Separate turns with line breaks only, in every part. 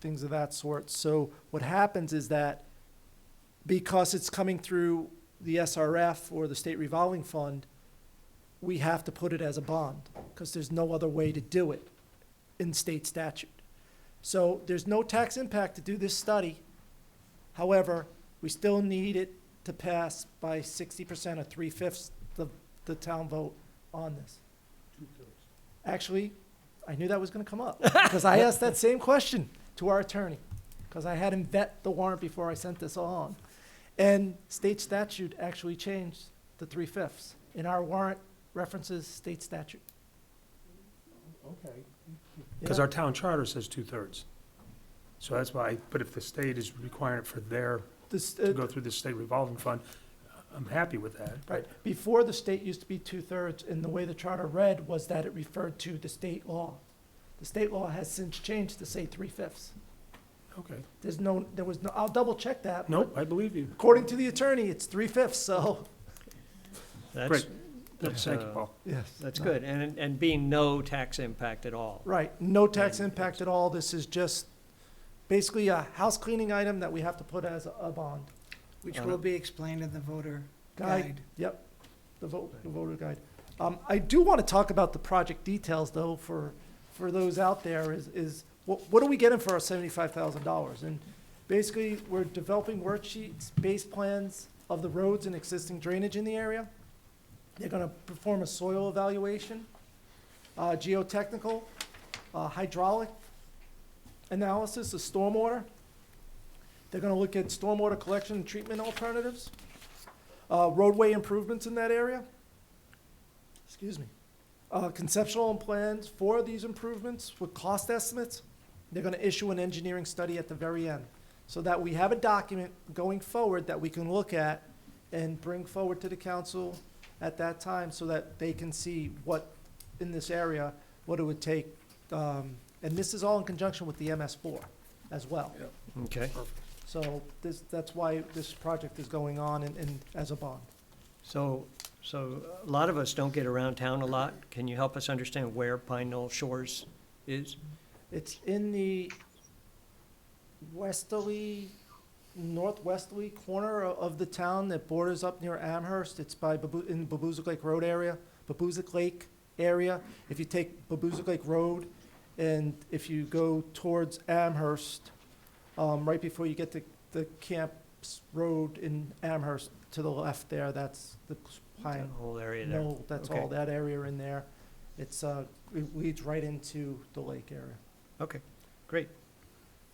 things of that sort. So what happens is that because it's coming through the SRF or the state revolving fund, we have to put it as a bond because there's no other way to do it in state statute. So there's no tax impact to do this study. However, we still need it to pass by sixty percent or three-fifths the, the town vote on this. Actually, I knew that was gonna come up, because I asked that same question to our attorney, because I had him vet the warrant before I sent this on. And state statute actually changed the three-fifths, and our warrant references state statute.
Okay.
Because our town charter says two-thirds. So that's why, but if the state is requiring it for their,
This,
to
uh,
go through the state revolving fund, I'm happy with that.
Right, before the state used to be two-thirds, and the way the charter read was that it referred to the state law. The state law has since changed to say three-fifths.
Okay.
There's no, there was no, I'll double-check that. but
Nope, I believe you.
According to the attorney, it's three-fifths, so.
That's, that's,
Thank you,
uh,
Paul.
Yes.
that's good, and, and being no tax impact at all.
Right, no tax
And
impact at all, this is just basically a house cleaning item that we have to put as a- a bond.
Which
Uh,
will be explained in the voter
Guide,
guide.
yep, the vote, the voter guide. Um, I do want to talk about the project details though, for, for those out there is, is what, what are we getting for our seventy-five thousand dollars? And basically, we're developing worksheets, base plans of the roads and existing drainage in the area. They're gonna perform a soil evaluation, uh, geotechnical, uh, hydraulic analysis of stormwater. They're gonna look at stormwater collection and treatment alternatives, uh, roadway improvements in that area. Excuse me. Uh, conceptual and plans for these improvements with cost estimates. They're gonna issue an engineering study at the very end, so that we have a document going forward that we can look at and bring forward to the council at that time, so that they can see what, in this area, what it would take. Um, and this is all in conjunction with the MS four as well.
Okay.
So this, that's why this project is going on and, and as a bond.
So, so a lot of us don't get around town a lot. Can you help us understand where Pine Knoll Shores is?
It's in the westerly, northwesterly corner o- of the town that borders up near Amherst. It's by, Babu- in Babuzik Lake Road area, Babuzik Lake area. If you take Babuzik Lake Road and if you go towards Amherst, um, right before you get to the Camps Road in Amherst, to the left there, that's the
That
Pine
whole area there?
no, that's all
Okay.
that area in there. It's, uh, it leads right into the lake area.
Okay, great.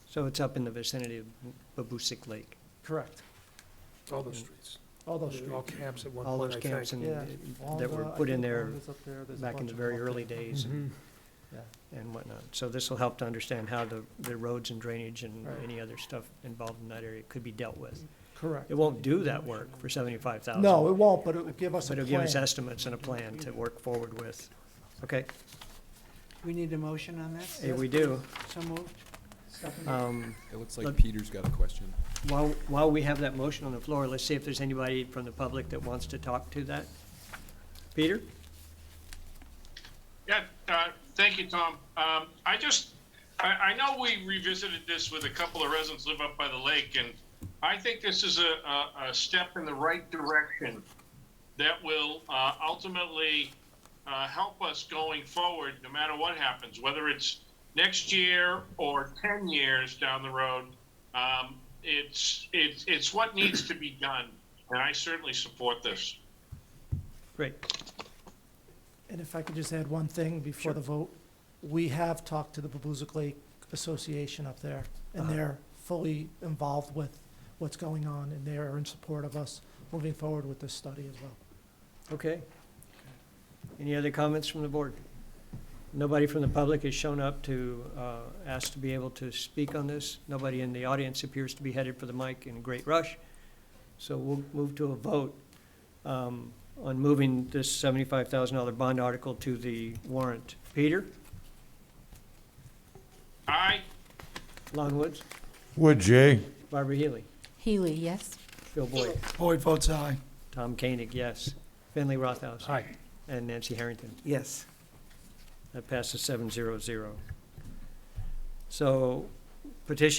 So it's up in the vicinity of Babusick Lake,
Correct.
All those streets,
All those
all
streets.
camps at one
all
point,
those
I
camps
think.
and
Yeah.
that were put in there back in the very early days
Mhm.
and- and whatnot. So this will help to understand how the, the roads and drainage and
Right.
any other stuff involved in that area could be dealt with.
Correct.
It won't do that work for seventy-five thousand.
No, it won't, but it will give us a
But it'll give us
plan.
estimates and a plan to work forward with. Okay,
We need a motion on that?
hey, we do.
So moved?
Um,
It looks
Let-
like Peter's got a question.
While, while we have that motion on the floor, let's see if there's anybody from the public that wants to talk to that. Peter?
Yeah, uh, thank you, Tom. Um, I just, I, I know we revisited this with a couple of residents who live up by the lake, and I think this is a, a, a step in the right direction that will uh, ultimately uh, help us going forward, no matter what happens, whether it's next year or 10 years down the road. Um, it's, it's, it's what needs to be done, and I certainly support this.
Great.
And if I could just add one thing before
Sure.
the vote, we have talked to the Babuzik Lake Association up there, and
Uh-huh.
they're fully involved with what's going on, and they are in support of us moving forward with this study as well.
Okay. Any other comments from the board? Nobody from the public has shown up to uh, ask to be able to speak on this. Nobody in the audience appears to be headed for the mic in a great rush. So we'll move to a vote um, on moving this $75,000 bond article to the warrant. Peter
Aye.
Longwoods,
Would Jay?
Barbara Healy,
Healy, yes.
Bill Boyd,
Boyd votes aye.
Tom Koenig, yes. Finley Rothaus
Aye.
and Nancy Harrington.
Yes.
That passes seven zero zero. So petition